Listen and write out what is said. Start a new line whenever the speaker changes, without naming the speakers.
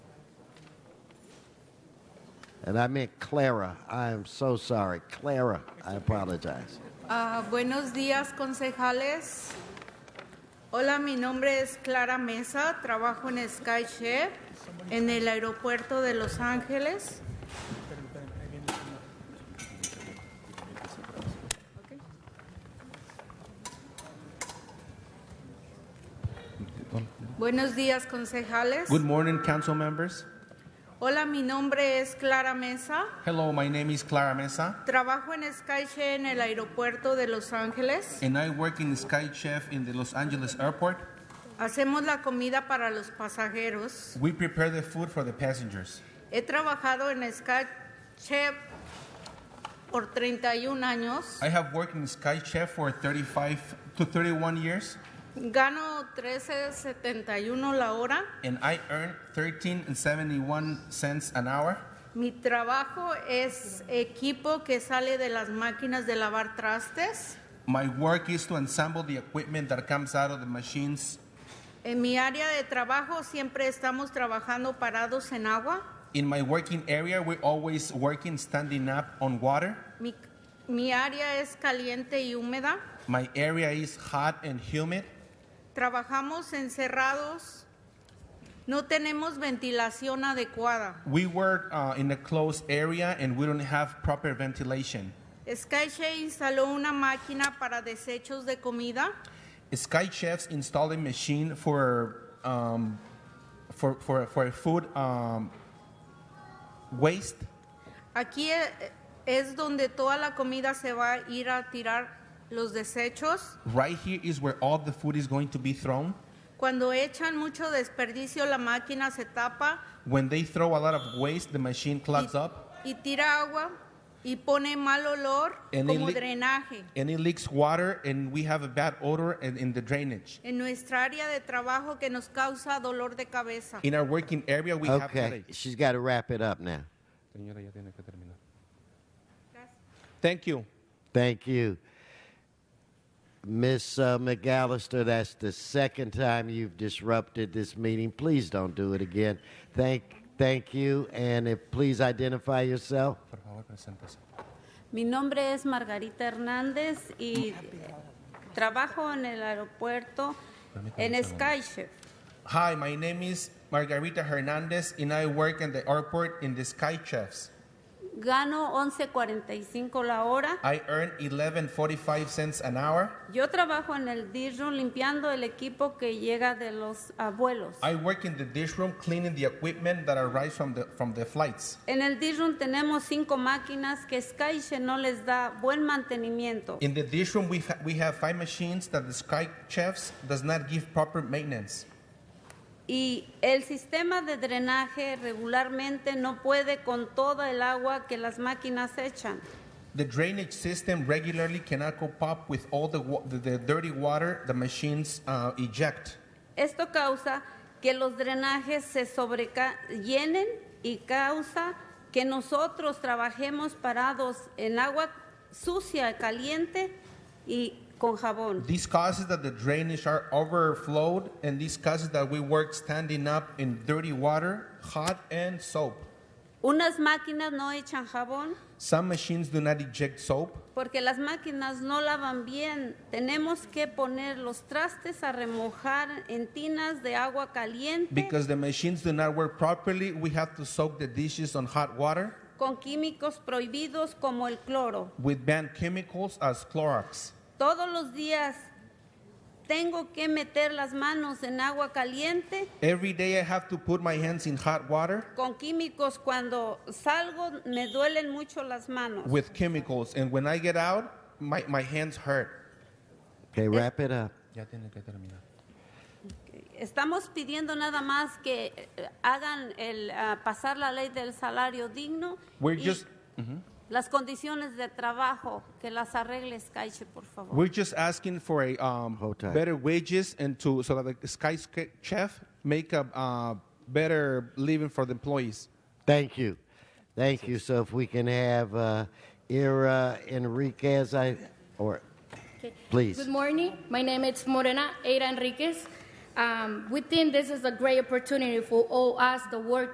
And I meant Clara. I am so sorry. Clara, I apologize.
Ah, buenos días, concejales. Hola, mi nombre es Clara Mesa, trabajo en Sky Chef en el aeropuerto de Los Ángeles. Buenos días, concejales.
Good morning, council members.
Hola, mi nombre es Clara Mesa,
Hello, my name is Clara Mesa,
trabajo en Sky Chef en el aeropuerto de Los Ángeles.
and I work in Sky Chef in the Los Angeles airport.
Hacemos la comida para los pasajeros.
We prepare the food for the passengers.
He trabajado en Sky Chef por 31 años.
I have worked in Sky Chef for 35 to 31 years,
Gano 13.71 la hora.
and I earn 13 and 71 cents an hour.
Mi trabajo es equipo que sale de las máquinas de lavar trastes.
My work is to ensemble the equipment that comes out of the machines.
En mi área de trabajo siempre estamos trabajando parados en agua.
In my working area, we're always working standing up on water.
Mi, mi área es caliente y húmeda.
My area is hot and humid.
Trabajamos encerrados. No tenemos ventilación adecuada.
We work uh, in a closed area and we don't have proper ventilation.
SkyShare instaló una máquina para desechos de comida.
Sky Chefs installed a machine for um, for for for food um, waste.
Aquí eh, es donde toda la comida se va a ir a tirar los desechos.
Right here is where all the food is going to be thrown.
Cuando echan mucho desperdicio, la máquina se tapa
When they throw a lot of waste, the machine clogs
y,
up
y tira agua y pone mal olor
And it
como
li-
drenaje.
and it leaks water, and we have a bad odor in, in the drainage.
En nuestra área de trabajo que nos causa dolor de cabeza.
In our working area, we have
Okay,
headaches.
she's got to wrap it up now.
Thank you.
Thank you. Miss uh, McAllister, that's the second time you've disrupted this meeting. Please don't do it again. Thank, thank you, and if please identify yourself.
Mi nombre es Margarita Hernández y trabajo en el aeropuerto en SkyShip.
Hi, my name is Margarita Hernandez, and I work at the airport in the Sky Chefs.
Gano 11.45 la hora.
I earn 11.45 cents an hour.
Yo trabajo en el dish room limpiando el equipo que llega de los abuelos.
I work in the dish room cleaning the equipment that arrives from the from the flights.
En el dish room tenemos cinco máquinas que SkyShip no les da buen mantenimiento.
In the dish room, we ha- we have five machines that the Sky Chefs does not give proper maintenance,
Y el sistema de drenaje regularmente no puede con toda el agua que las máquinas echan.
the drainage system regularly cannot cope up with all the wa- the, the dirty water the machines uh, eject.
Esto causa que los drenajes se sobrellenen y causa que nosotros trabajemos parados en agua sucia, caliente y con jabón.
This causes that the drainage are overflowed, and this causes that we work standing up in dirty water, hot and soap.
Unas máquinas no echan jabón
Some machines do not eject soap.
porque las máquinas no lavan bien. Tenemos que poner los trastes a remojar en tinas de agua caliente
Because the machines do not work properly, we have to soak the dishes on hot water
con químicos prohibidos como el cloro.
with banned chemicals as Clorox.
Todos los días tengo que meter las manos en agua caliente
Every day I have to put my hands in hot water
con químicos. Cuando salgo me duelen mucho las manos.
with chemicals, and when I get out, my, my hands hurt.
Okay, wrap it up.
Estamos pidiendo nada más que eh, hagan el ah, pasar la ley del salario digno
We're
y
just,
las condiciones de trabajo que las arregles Caiche, por favor.
we're just asking for a um,
Hold tight.
better wages and to so that the Sky Sk- Chef make a uh, better living for the employees.
Thank you. Thank you. So if we can have uh, Ira Enriquez, I, or please.
Good morning. My name is Morena Eira Enriquez. Um, we think this is a great opportunity for all us, the work